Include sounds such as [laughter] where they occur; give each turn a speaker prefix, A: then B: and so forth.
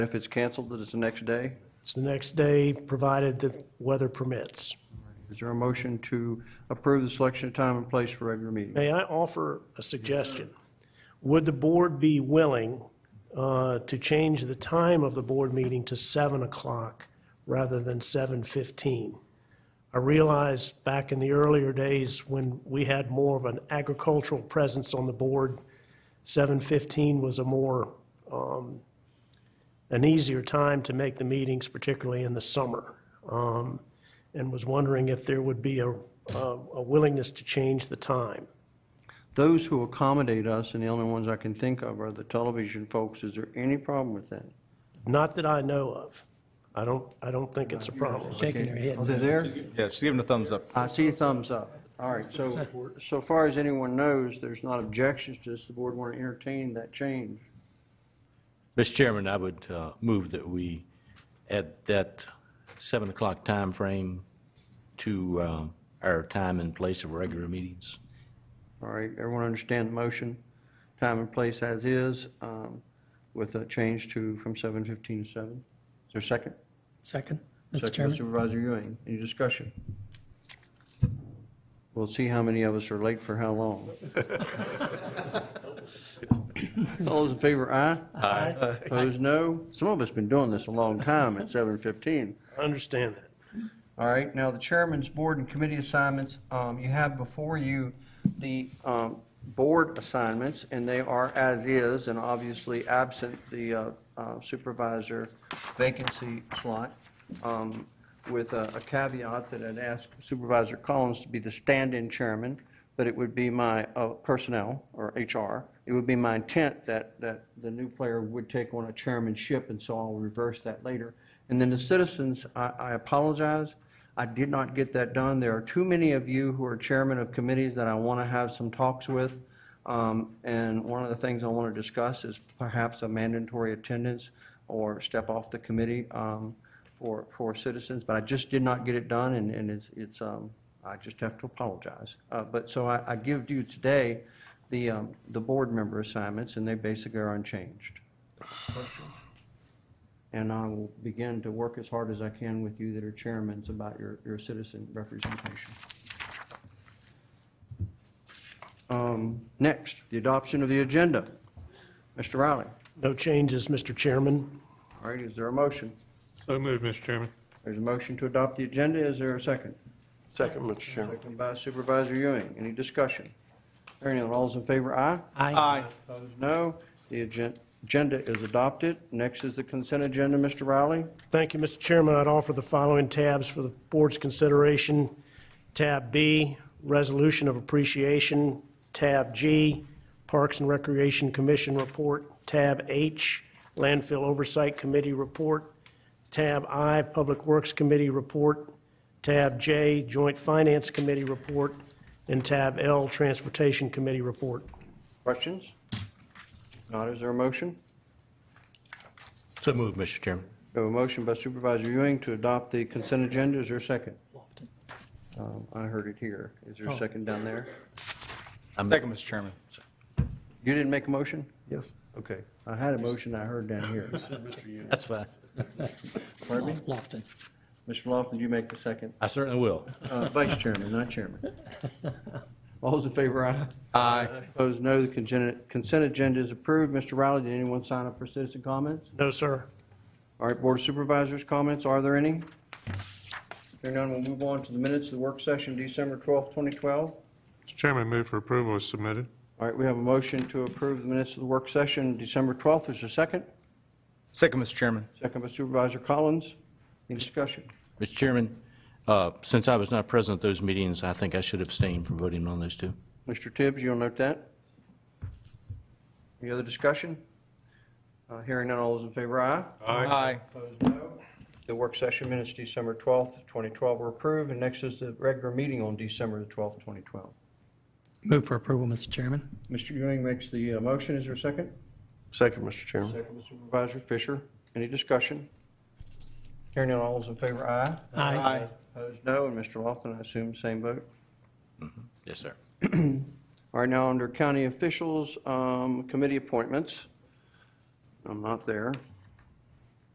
A: If it's canceled, that it's the next day?
B: It's the next day, provided the weather permits.
A: Is there a motion to approve the selection of time and place for regular meeting?
B: May I offer a suggestion? Would the board be willing uh, to change the time of the board meeting to 7 o'clock rather than 7:15? I realize back in the earlier days when we had more of an agricultural presence on the board, 7:15 was a more, um, an easier time to make the meetings, particularly in the summer. Um, And was wondering if there would be a a- a willingness to change the time.
A: Those who accommodate us, and the only ones I can think of are the television folks, is there any problem with that?
B: Not that I know of. I don't, I don't think it's a problem.
C: shaking her
A: Are
C: head.
A: they there?
D: Yeah, she's giving a thumbs up.
A: I see a thumbs up. All right, so, so far as anyone knows, there's not objections to this, the board want to entertain that change.
C: Mr. Chairman, I would uh, move that we add that 7 o'clock time frame to um, our time and place of regular meetings.
A: All right, everyone understand the motion? Time and place as is, um, with a change to, from 7:15 to 7? Is there a second?
C: Second.
A: Second
C: Mr.
A: by
C: Chairman?
A: Supervisor Ewing, any discussion? We'll see how many of us are late for how long. All those in favor, aye? Aye. Opposed, no? Some of us been doing this a long time at 7:15.
B: I understand that.
A: All right, now the chairman's board and committee assignments, um, you have before you the, um, board assignments, and they are as is, and obviously absent the uh, uh, supervisor vacancy slot, um, with a a caveat that I'd ask Supervisor Collins to be the stand-in chairman, but it would be my uh, personnel, or HR, it would be my intent that, that the new player would take on a chairmanship, and so I'll reverse that later. And then the citizens, I, I apologize, I did not get that done. There are too many of you who are chairman of committees that I want to have some talks with. Um, And one of the things I want to discuss is perhaps a mandatory attendance or step off the committee um, for, for citizens, but I just did not get it done, and, and it's, it's, um, I just have to apologize. Uh, But, so I, I give you today the, um, the board member assignments, and they basically are unchanged. And I will begin to work as hard as I can with you that are chairmans about your, your citizen representation. Um, Next, the adoption of the agenda. Mr. Riley,
B: No changes, Mr. Chairman.
A: all right, is there a motion?
E: So moved, Mr. Chairman.
A: There's a motion to adopt the agenda, is there a second?
E: Second, Mr. Chairman.
A: Second by Supervisor Ewing, any discussion? Hearing none, all's in favor, aye?
D: Aye.
A: Opposed, no. The agen- agenda is adopted. Next is the consent agenda, Mr. Riley.
B: Thank you, Mr. Chairman. I'd offer the following tabs for the board's consideration. Tab B, Resolution of Appreciation. Tab G, Parks and Recreation Commission Report. Tab H, Landfill Oversight Committee Report. Tab I, Public Works Committee Report. Tab J, Joint Finance Committee Report. And Tab L, Transportation Committee Report.
A: Questions? Not, is there a motion?
C: So moved, Mr. Chairman.
A: We have a motion by Supervisor Ewing to adopt the consent agenda. Is there a second?
C: Lofton.
A: Um, I heard it here. Is there a second down there?
C: I'm-
D: Second, Mr. Chairman.
A: You didn't make a motion?
E: Yes.
A: Okay. I had a motion I heard down
C: [laughs]
A: here.
C: That's fine.
A: Pardon me?
C: Lofton.
A: Mr. Lofton, you make the second.
C: I certainly will.
A: Uh, Vice Chairman, not Chairman. [laughs] All those in favor, aye.
D: Aye.
A: Opposed, no. The consent consent agenda is approved. Mr. Riley, did anyone sign up for citizen comments?
B: No, sir.
A: All right, Board of Supervisors, comments, are there any? Hearing none, we'll move on to the minutes of the work session, December 12th, 2012.
E: Mr. Chairman, move for approval is submitted.
A: All right, we have a motion to approve the minutes of the work session, December 12th, is there a second?
D: Second, Mr. Chairman.
A: Second by Supervisor Collins, any discussion?
C: Mr. Chairman, uh, since I was not present at those meetings, I think I should abstain from voting on those two.
A: Mr. Tibbs, you'll note that? Any other discussion? Uh, Hearing none, all those in favor, aye?
D: Aye.
A: Opposed, no. The work session minutes, December 12th, 2012 were approved, and next is the regular meeting on December the 12th, 2012.
F: Move for approval, Mr. Chairman.
A: Mr. Ewing makes the uh, motion, is there a second?
E: Second, Mr. Chairman.
A: Second by Supervisor Fisher. Any discussion? Hearing none, all those in favor, aye.
D: Aye.
A: Opposed, no. And Mr. Lofton, I assume the same vote.
C: Yes, sir.
A: All right, now under county officials, um, committee appointments. I'm not there.